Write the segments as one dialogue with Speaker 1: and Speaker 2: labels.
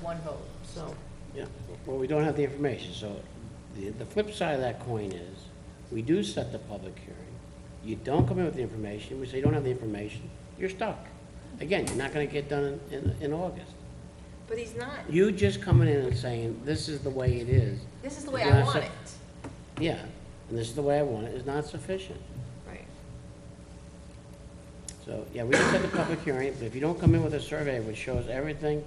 Speaker 1: one vote, so.
Speaker 2: Yeah, well, we don't have the information, so the, the flip side of that coin is, we do set the public hearing, you don't come in with the information, we say you don't have the information, you're stuck. Again, you're not gonna get done in, in, in August.
Speaker 1: But he's not.
Speaker 2: You just coming in and saying, this is the way it is,
Speaker 1: This is the way
Speaker 2: You're
Speaker 1: I
Speaker 2: not
Speaker 1: want
Speaker 2: sup-
Speaker 1: it.
Speaker 2: yeah, and this is the way I want it, is not sufficient.
Speaker 1: Right.
Speaker 2: So, yeah, we can set the public hearing, but if you don't come in with a survey which shows everything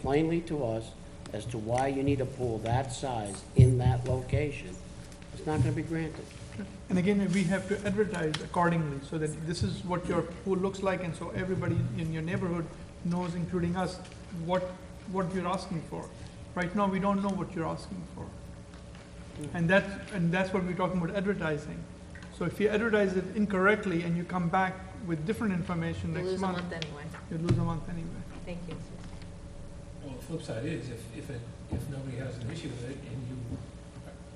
Speaker 2: plainly to us as to why you need a pool that size in that location, it's not gonna be granted.
Speaker 3: And again, we have to advertise accordingly, so that this is what your pool looks like, and so everybody in your neighborhood knows, including us, what, what you're asking for. Right now, we don't know what you're asking for. And that's, and that's what we're talking about advertising. So if you advertise it incorrectly and you come back with different information
Speaker 1: We'll
Speaker 3: next
Speaker 1: lose a
Speaker 3: month,
Speaker 1: month anyway.
Speaker 3: you lose a month anyway.
Speaker 1: Thank you.
Speaker 4: Well, the flip side is, if, if, it- if nobody has an issue with it and you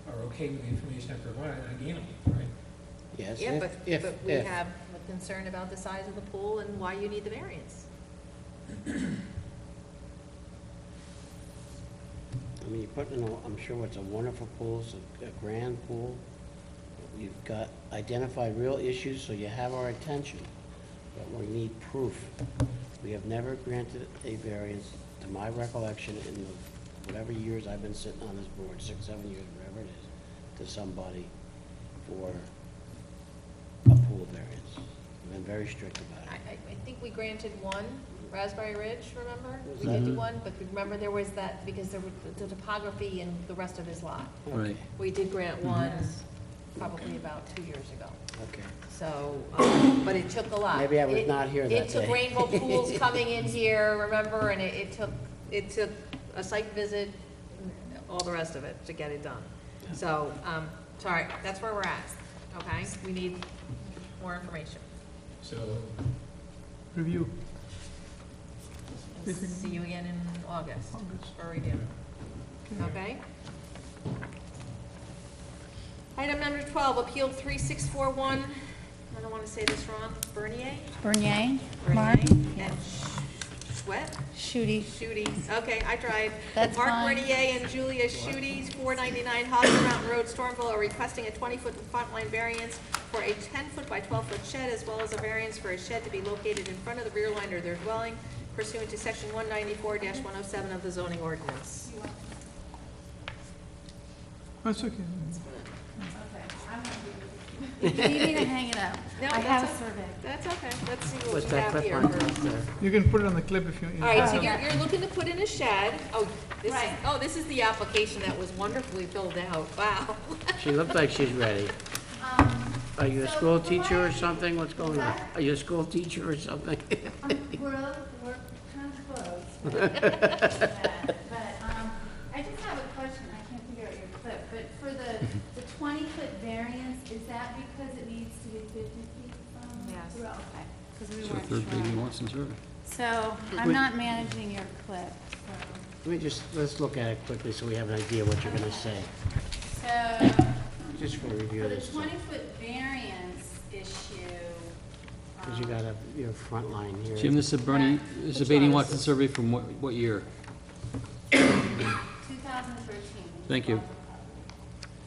Speaker 4: are okay with the information I provide, I gain it, right?
Speaker 2: Yes,
Speaker 1: Yeah,
Speaker 2: if,
Speaker 1: but,
Speaker 2: if,
Speaker 1: but we
Speaker 2: if.
Speaker 1: have a concern about the size of the pool and why you need the variance.
Speaker 2: I mean, you're putting, in a- I'm sure it's a wonderful pool, it's a a grand pool. You've got identified real issues, so you have our attention, but we need proof. We have never granted a variance, to my recollection, in the whatever years I've been sitting on this board, six, seven years, whatever it is, to somebody for a pool variance. We've been very strict
Speaker 1: I,
Speaker 2: about it.
Speaker 1: I, I think we granted one, Raspberry Ridge, remember?
Speaker 2: Was
Speaker 1: We did
Speaker 5: that-
Speaker 1: do one, but remember there was that, because there was the topography and the rest of his lot.
Speaker 5: Right.
Speaker 1: We did grant
Speaker 2: Mm-hmm.
Speaker 1: one, probably about two years ago.
Speaker 2: Okay.
Speaker 1: So, um, but it took a lot.
Speaker 2: Maybe I was
Speaker 1: It-
Speaker 2: not here
Speaker 1: It
Speaker 2: that
Speaker 1: took
Speaker 2: day.
Speaker 1: rainbow pools coming in here, remember, and it, it took, it took a site visit, all the rest of it to get it done. So, um, sorry, that's where we're at, okay? We need more information.
Speaker 4: So,
Speaker 3: Review.
Speaker 1: We'll See you again in August for review, okay? Item number twelve, appeal three six four one, I don't wanna say this wrong, Bernier?
Speaker 6: Bernier, Mark,
Speaker 1: Bernier and Schwett?
Speaker 6: Shooty.
Speaker 1: Shooties, okay, I tried.
Speaker 6: That's
Speaker 1: Mark
Speaker 6: fine.
Speaker 1: Renier and Julia Shooties, 499 Hosner Mountain Road, Stormville, are requesting a 20-foot front line variance for a 10-foot by 12-foot shed, as well as a variance for a shed to be located in front of the rear line of their dwelling pursuant to section 194-107 of the zoning ordinance.
Speaker 3: That's okay.
Speaker 6: You need to hang it up.
Speaker 1: No,
Speaker 6: I have Oh, a
Speaker 1: that's
Speaker 6: survey.
Speaker 1: That's okay, let's see what
Speaker 2: What's
Speaker 1: we
Speaker 2: that
Speaker 1: have
Speaker 2: clip
Speaker 1: here.
Speaker 2: on?
Speaker 1: All
Speaker 2: There.
Speaker 3: You can put it on the clip if you.
Speaker 1: right, so
Speaker 6: Okay.
Speaker 1: you're, you're looking to put in a shed, oh, this is,
Speaker 6: Right.
Speaker 1: oh, this is the application that was wonderfully filled out, wow.
Speaker 2: She looked like she's ready.
Speaker 6: Um,
Speaker 2: Are you a
Speaker 6: So,
Speaker 2: school
Speaker 6: from
Speaker 2: teacher
Speaker 6: what
Speaker 2: or
Speaker 6: I-
Speaker 2: something? What's going on? Are you a school teacher or something?
Speaker 6: we're, we're kind of close. But, um, I just have a question, I can't figure out your clip, but for the, the twenty-foot variance, is that because it needs to be fifty feet from?
Speaker 1: Yes.
Speaker 6: Well, okay. Because we
Speaker 5: So
Speaker 6: weren't
Speaker 5: third reading
Speaker 6: sure.
Speaker 5: once and survey.
Speaker 6: So,
Speaker 2: Wait.
Speaker 6: I'm not managing your clip, so.
Speaker 2: Let me just, let's look at it quickly so we have an idea what you're gonna say,
Speaker 6: So,
Speaker 2: just for review
Speaker 6: for
Speaker 2: of
Speaker 6: the
Speaker 2: this.
Speaker 6: twenty-foot variance issue.
Speaker 2: Because you
Speaker 6: um,
Speaker 2: got a, your front line here.
Speaker 5: Jim, this is Bernie, this is
Speaker 6: Which
Speaker 5: Beatty
Speaker 6: one is
Speaker 5: Watson
Speaker 6: this?
Speaker 5: survey from what, what year?
Speaker 6: 2013.
Speaker 5: Thank you.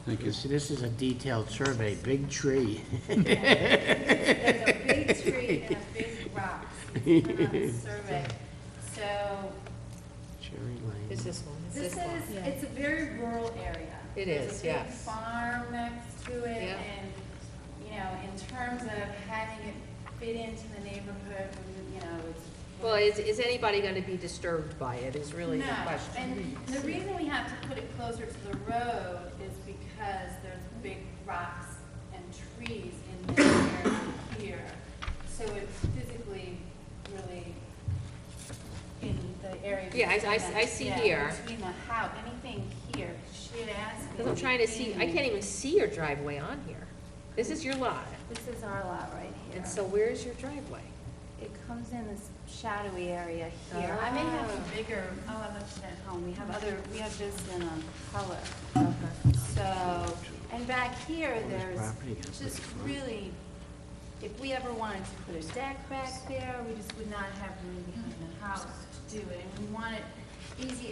Speaker 5: Thank
Speaker 2: You
Speaker 5: you.
Speaker 2: See, this is a detailed survey, big tree.
Speaker 6: There's a big tree and a big rock. It's been on the survey. So
Speaker 2: Cherry Lane.
Speaker 1: It's this one, it's
Speaker 6: this
Speaker 1: this
Speaker 6: is,
Speaker 1: one.
Speaker 6: it's a very rural area.
Speaker 1: It is,
Speaker 6: There's a big
Speaker 1: yes.
Speaker 6: farm next to it
Speaker 1: Yeah.
Speaker 6: and, you know, in terms of having it fit into the neighborhood, you know, it's.
Speaker 1: Well, is, is anybody gonna be disturbed by it, is really the
Speaker 6: No,
Speaker 1: question.
Speaker 6: And the reason we have to put it closer to the road is because there's big rocks and trees in this area here. So it's physically really in the area.
Speaker 1: Yeah, I- I-
Speaker 6: between the-
Speaker 1: I see
Speaker 6: yeah,
Speaker 1: here.
Speaker 6: Between the house, anything here, she had asked me.
Speaker 1: Because I'm trying to see, I can't even see your driveway on here. This is your lot,
Speaker 6: This is our lot right here.
Speaker 1: and so where's your driveway?
Speaker 6: It comes in this shadowy area here. Uh, I may have a bigger, oh, I left it at home, we have other, we have this in a color. So, and back here,
Speaker 2: this property has
Speaker 6: there's just
Speaker 2: big front.
Speaker 6: really, if we ever wanted to put a deck back there, we just would not have room behind the house to do it. And we want it easy